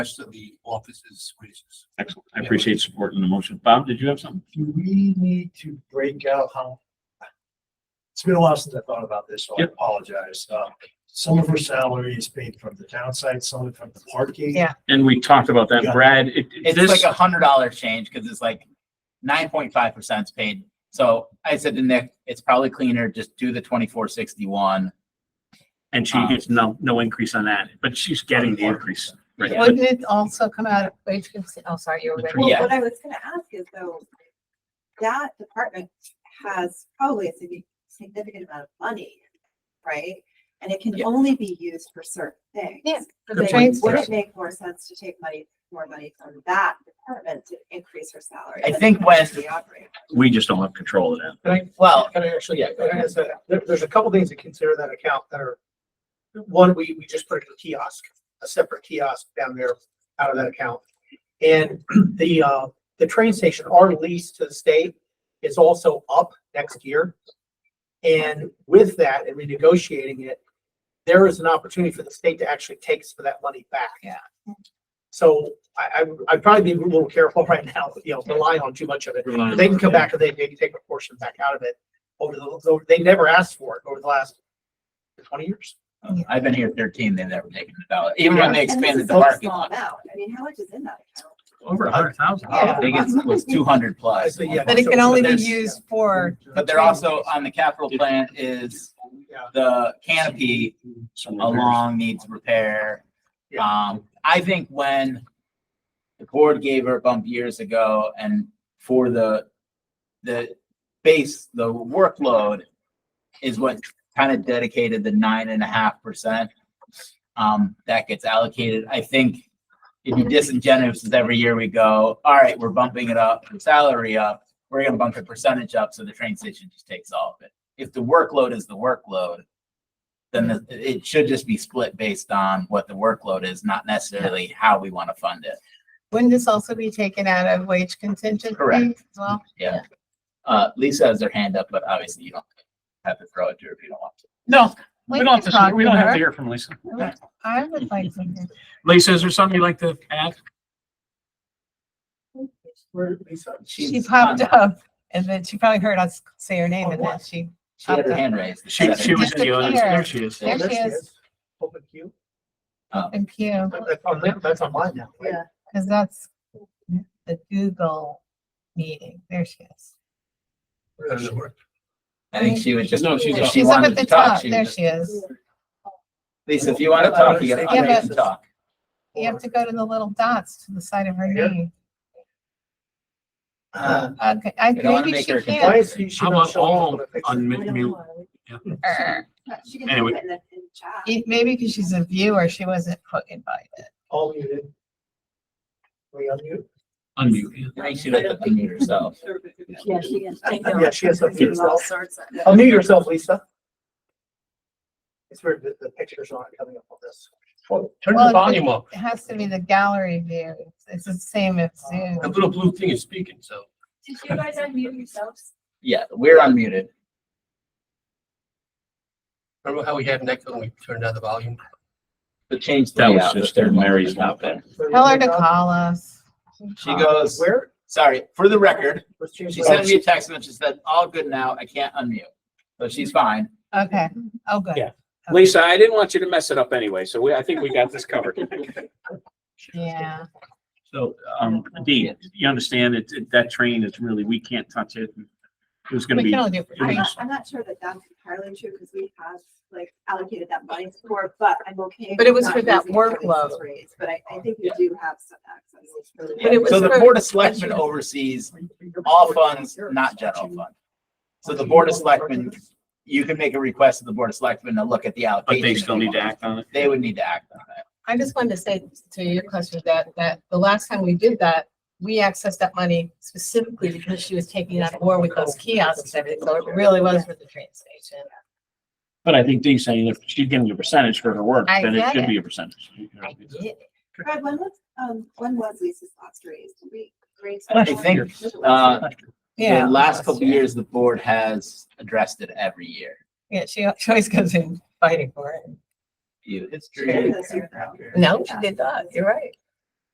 rest of the offices' raises. Excellent. I appreciate supporting the motion. Bob, did you have something? Do we need to break out how? It's been a while since I thought about this, so I Yep. apologize. Uh, some of her salary is paid from the town site, some from the parking. Yeah. And we talked about that, Yeah. Brad. it- It's this- like a hundred dollar change because it's like nine point five percent is paid. So I said to Nick, it's probably cleaner, just do the twenty four sixty one. And she gets no, no increase on that, but she's getting the increase. Right. Wouldn't it also come out of wage, cons- oh, sorry, you were. ready. Well, Yeah. What I was gonna ask is though, that department has probably a signi- significant amount of money, right? And it can Yeah. only be used for certain things. Yeah, for the Then train Would it station. make more sense to take money, more money from that department to increase her salary? I than think when- the operating? We just don't have control of that. Can I, Well, can I actually, yeah, can I ask that? There, there's a couple things to consider that account that are, one, we, we just put a kiosk, a separate kiosk down there out of that account. And the, uh, the train station, our lease to the state is also up next year. And with that and renegotiating it, there is an opportunity for the state to actually take some of that money back. Yeah. So I, I, I'd probably be a little careful right now, you know, relying on too much of it. They can come back and they maybe take a portion back out of it over the, so they never asked for it over the last twenty years. I've been here thirteen, they've never taken a dollar, even when they And this expanded is the such a parking small lot. amount. I mean, how much is in that account? Over a hundred thousand. Uh, I think it was two hundred plus. So, yeah, But it so- can so only be there's- used for, But they're also on the capital plan is Yeah. the canopy Some repairs. along needs repair. Um, I think when the board gave her a bump years ago and for the, the base, the workload is what kind of dedicated the nine and a half percent. Um, that gets allocated. I think it'd be disingenuous if every year we go, all right, we're bumping it up, the salary up. We're gonna bump the percentage up so the train station just takes all of it. If the workload is the workload, then the- it should just be split based on what the workload is, not necessarily how we want to fund it. wouldn't this also be taken out of wage contingency? Correct. as Well, Yeah. Uh, Lisa has her hand up, but obviously you don't have to throw it to her if you don't want to. No, We we don't can have to, we talk don't to have her. to hear from Lisa. I would like something. Lisa, is there something you'd like to add? Where Lisa- She popped up and then she probably heard us say her name and then she, She had her hand raised. She, she was in the audience. There Disappear. she is. There she is. Open queue. Uh, and Pew, That's on, them- that's on mine now. right? Yeah. because that's the Google meeting. There she is. Where is she? I think she was just, No, she's if up. she She's up wanted at to the talk, top. she There was. she is. Lisa, if you want to talk, you gotta Yeah, unmute but- and talk. You have to go to the little dots to the side of her Yeah. name. Uh, Okay, I, You don't wanna maybe make she her Why can't. is she? she How not about showing up on all the picture? I unmute? don't mute? know. Er, She can Anyway. put it in the, in the chat. it- Maybe because she's a viewer, she wasn't put invited. All muted. We unmute? Unmute. yeah. I think she had to unmute herself. Yeah, she is. Yeah, she has something. There's all sorts of. Unmute yourself, Lisa. It's where the, the pictures aren't coming up on this. Turn Well, the it- volume up. It has to be the gallery view. It's- It's the same as Zoom. That little blue thing is speaking, so. Did you guys unmute yourselves? Yeah, we're unmuted. Remember how we had an echo when we turned down the volume? The change. That was just Mary's out laptop. there. Tell her to call us. She goes, Where? sorry, for the record, Let's change she the- sent me a text and she said, all good now, I can't unmute. So she's fine. Okay. Oh, good. Yeah. Lisa, I didn't want you to mess it up anyway, so we, I think we got this covered. Yeah. So, um, Dee, you understand that, that train is really, we can't touch it. It was gonna We be. can only do. it I'm was- not, I'm not sure that that's entirely true because we have like allocated that money for, but I'm okay. But it was with for not that using it for workload. this raise, But I, I think we do have some access. But it was So the for- Board of Selectmen oversees all funds, not general fund. So the Board of Selectmen, you can make a request to the Board of Selectmen to look at the But allocation. they still need to act on it. They would need to act on it. I just wanted to say to your question that, that the last time we did that, we accessed that money specifically because she was taking that war with those kiosks and everything. So it really was for the train station. But I think Dee's saying if she's getting a percentage for her work, I then it get should it. be a percentage. I get it. Brad, when was, um, when was Lisa's last raise? Did we raise? I think, uh, Yeah. The last couple yeah. years, the board has addressed it every year. Yeah, she, she always goes in fighting for it. You- It's Sure, that's true. your problem. No, she did not. You're right.